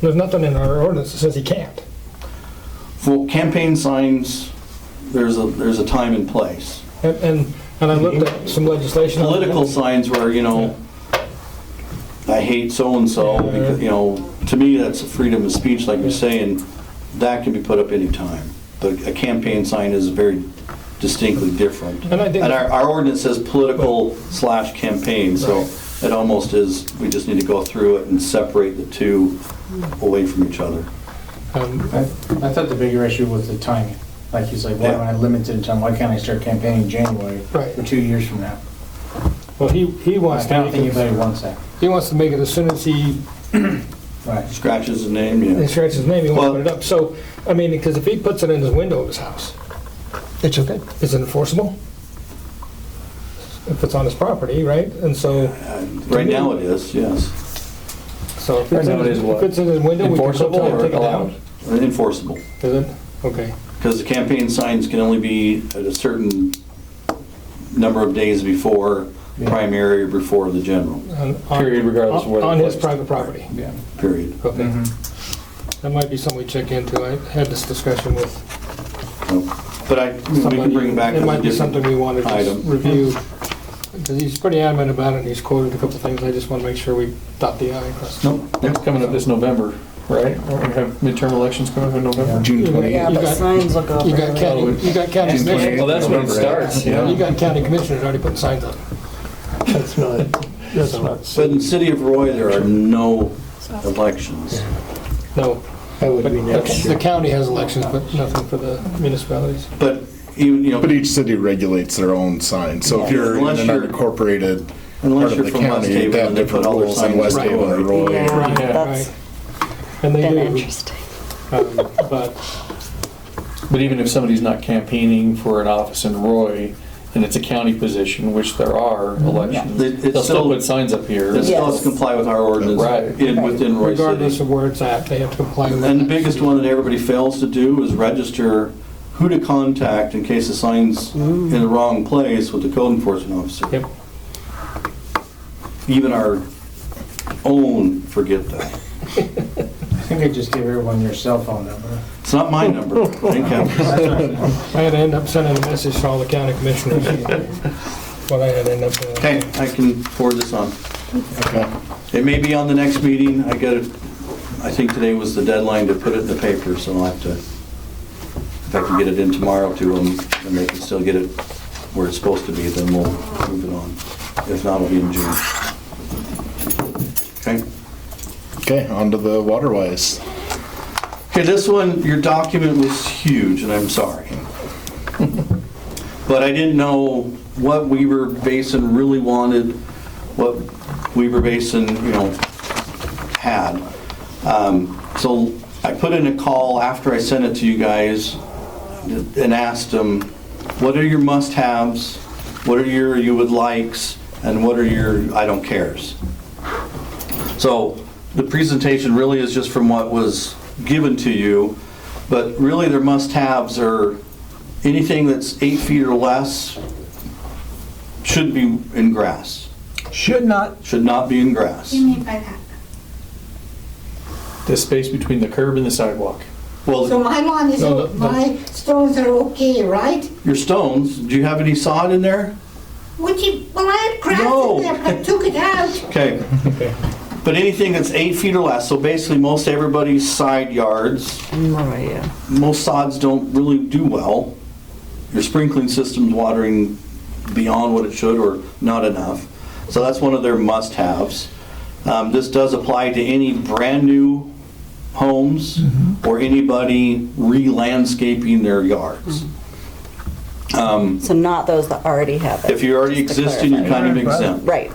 There's nothing in our ordinance that says he can't. For campaign signs, there's a, there's a time and place. And, and, and I looked at some legislation. on- Political signs where, you know, I hate so-and-so, because, you know, to me, that's a freedom of speech, like you're saying, that can be put up anytime. But a campaign sign is very distinctly different. And I think- And our, our ordinance says political slash campaign, so it almost is, we just need to go through it and separate the two away from each other. Um, I I thought the bigger issue was the timing. Like he's like, why am I limited in time? Why can't I start campaigning in January Right. or two years from now? Well, he, he I wants to don't think make it, anybody wants that. he wants to make it as soon as he Right. Scratches the name, yeah. scratches his name, he wants to Well- put it up. So, I mean, because if he puts it in his window of his house, it's okay. Is it enforceable? If it's on his property, right? And so, Right now it is, yes. so if it's Right in now it his, is what? if it's in his window, we can put it Enforceable up and or take it down. allowed? Enforceable. Is it? Okay. Because the campaign signs can only be at a certain number of days before Yeah. primary or before the general, On- on- Period, regardless of where On they're his placed. private property. Yeah. period. Okay. Mm-hmm. Mhm. That might be something we check into. I had this discussion with But I, we somebody. can bring it back as It a might be something different. we want to just item. review, because he's pretty adamant about it, and he's quoted a couple things. I just want to make sure we dot the i and cross. the- Nope, it's coming up this November, right? Aren't we have midterm elections coming up in November? June You 28th. got- Yeah, you but got- signs will go You got for county, you got county commissioners. Well, that's when it starts, You yeah. got county commissioners already putting signs up. That's not, that's not, But in the city of Roy, there are no elections. No, that would be but next the year. county has elections, but nothing for the municipalities. But even, you But know, each city regulates their own sign, so if you're in Unless an you're- unincorporated part unless of you're the from West county, Haven they have and they put different all their rules in signs West right Haven or over. Roy. Yeah, Yeah. that's And they been do, interesting. um, but, But even if somebody's not campaigning for an office in Roy, and it's a county position, which there are elections, It- it's they'll still still- put signs up here. It still has to comply with our ordinance Right. in, within Roy regardless City. of where it's at, they have to comply with. And the that. biggest one that everybody fails to do is register who to contact in case the sign's in the wrong place with the code enforcement officer. Yep. even our own forget that. I think I just gave everyone your cell phone number. It's not my number. I think I'm- I had to end up sending a message to all the county commissioners. What I had to end up doing. Okay, I can forward this on. Okay. It may be on the next meeting. I got it, I think today was the deadline to put it in the paper, so I'll have to, if I can get it in tomorrow to them, and they can still get it where it's supposed to be, then we'll move it on. If not, it'll be in June. Okay? Okay, onto the waterways. Okay, this one, your document was huge, and I'm sorry. But I didn't know what Weaver Basin really wanted, what Weaver Basin, you know, had. Um, So I put in a call after I sent it to you guys and asked them, what are your must-haves? What are your you would likes? And what are your I don't cares? So the presentation really is just from what was given to you, but really their must-haves are anything that's eight feet or less should be in grass, Should not, should not be in grass. do you mean by that? The space between the curb and the sidewalk. So Well, my lawn is, No, no, no. my stones are okay, right? your stones, do you have any sod in there? Would you, well, I had grass No. in there, but I took it out. Okay. But anything that's eight feet or less, so basically most everybody's side yards, Right, yeah. most sods don't really do well. Your sprinkling system's watering beyond what it should or not enough. So that's one of their must-haves. Um, This does apply to any brand-new homes or anybody re-landscaping their yards. Mm-hmm. So not those that already have it. If you already just to existing, you're clarify. kind of exempt. Right.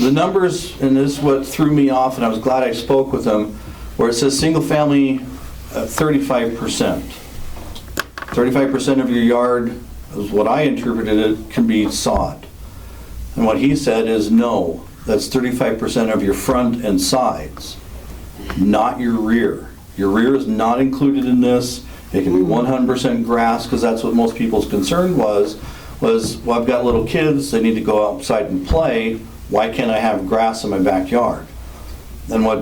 the numbers, and this is what threw me off, and I was glad I spoke with them, where it says single family, uh, 35%. 35% of your yard, is what I interpreted it, can be sod. And what he said is, no, that's 35% of your front and sides, not your rear. Your rear is not included in this. It can be 100% grass, because that's what most people's concern was, was, well, I've got little kids, they need to go outside and play, why can't I have grass in my backyard? And what